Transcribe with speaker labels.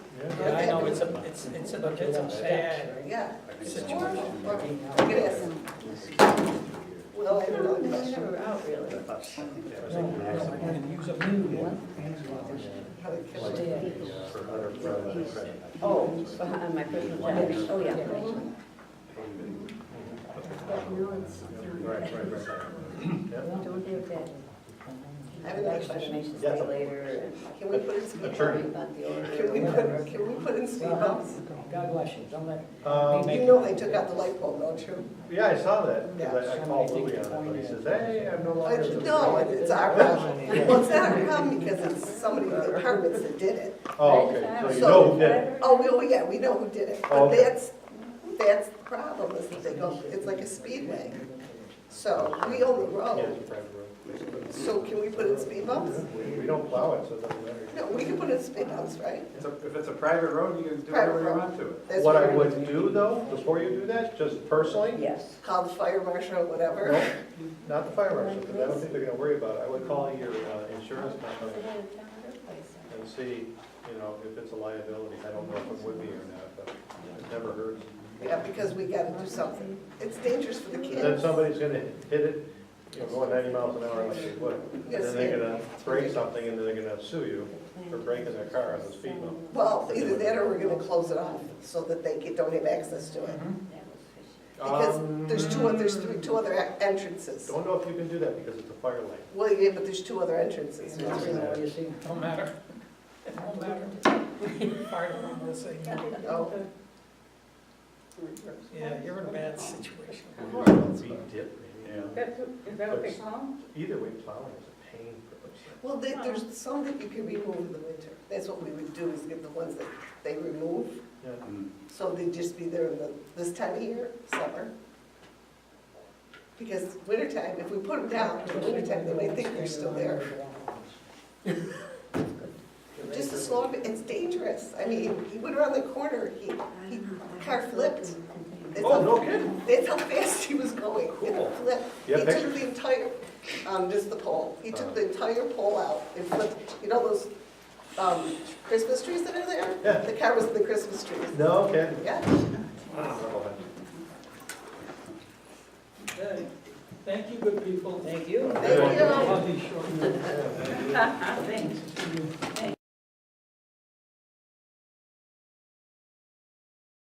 Speaker 1: Yeah, I know, it's a, it's, it's a, it's a bad.
Speaker 2: Yeah.
Speaker 1: Situation.
Speaker 2: Look at this. Well, I don't know,
Speaker 3: They
Speaker 2: that's
Speaker 3: never out really.
Speaker 1: And use a new one.
Speaker 2: how they kill it.
Speaker 3: Oh, on my personal tax, oh, yeah.
Speaker 4: But no, it's not. Don't have that.
Speaker 2: I have another question.
Speaker 3: Information state later.
Speaker 2: Can we put in speed
Speaker 5: Attorney.
Speaker 2: bumps? Can we put, can we put in speed bumps?
Speaker 1: God bless you, don't let.
Speaker 5: Um,
Speaker 2: You know they took out the light bulb, don't you?
Speaker 5: Yeah, I saw that, 'cause I I called Louis on it, but he says, hey, I'm no
Speaker 2: I
Speaker 5: longer.
Speaker 2: said, No, it's our problem. Well, it's not our problem because it's somebody in the apartments that did it.
Speaker 5: Oh, okay, so you know who did it.
Speaker 2: Oh, well, yeah, we know who did it,
Speaker 5: Oh,
Speaker 2: but
Speaker 5: okay.
Speaker 2: that's, that's the problem, is that they go, it's like a speedway. So we own the
Speaker 5: Yeah,
Speaker 2: road,
Speaker 5: it's a private road.
Speaker 2: so can we put in speed bumps?
Speaker 5: We don't plow it, so it doesn't matter.
Speaker 2: No, we can put in speed bumps, right?
Speaker 6: It's a- If it's a private road, you can do
Speaker 2: Private
Speaker 6: whatever you
Speaker 2: road.
Speaker 6: want to it.
Speaker 2: That's
Speaker 5: What I
Speaker 2: we're gonna
Speaker 5: would do though, before you do that, just personally,
Speaker 3: Yes.
Speaker 2: Call the fire marshal or
Speaker 5: no,
Speaker 2: whatever.
Speaker 5: not the fire marshal, because I don't think they're gonna worry about it. I would call your uh, insurance company and see, you know, if it's a liability. I don't know if it would be or not, but it never hurts.
Speaker 2: Yeah, because we gotta do something. It's dangerous for the kids.
Speaker 5: Then somebody's gonna hit it, you know, going ninety miles an hour like they would. And
Speaker 2: Yes,
Speaker 5: then they're
Speaker 2: yeah.
Speaker 5: gonna break something and then they're gonna sue you for breaking their car on the speed limit.
Speaker 2: Well, either that or we're gonna close it off so that they get- don't have access to it. Because there's two,
Speaker 5: Um,
Speaker 2: there's three, two other e- entrances.
Speaker 5: Don't know if you can do that because it's a fire lane.
Speaker 2: Well, yeah, but there's two other entrances.
Speaker 1: What do you see? Don't matter. It won't matter. Fire department will say,
Speaker 2: Oh,
Speaker 1: yeah, you're in a bad situation.
Speaker 5: Speed dip, maybe.
Speaker 3: Is that
Speaker 5: what they
Speaker 3: call
Speaker 5: Either way, plowing is a pain for those things.
Speaker 2: Well, they- there's some that you can remove in the winter. That's what we would do, is get the ones that they remove,
Speaker 5: Yeah.
Speaker 2: so they'd just be there in the, this time of year, summer. Because wintertime, if we put them down in the wintertime, they might think they're still there. Just a slow, it's dangerous. I mean, he went around the corner, he, he car flipped. That's
Speaker 5: Oh,
Speaker 2: how-
Speaker 5: no kidding?
Speaker 2: That's how fast he was going.
Speaker 5: Cool.
Speaker 2: It flipped. He
Speaker 5: You have
Speaker 2: took the entire, um, just the pole, he
Speaker 5: Uh.
Speaker 2: took the entire pole out and flipped, you know those, um, Christmas trees that are there?
Speaker 5: Yeah.
Speaker 2: The car was in the Christmas trees.
Speaker 5: No kidding?
Speaker 2: Yeah,
Speaker 5: Wow.
Speaker 1: Okay. Thank you, good people. Thank you.
Speaker 2: thank you.
Speaker 1: I'll be short.
Speaker 3: Thanks.
Speaker 1: Thanks.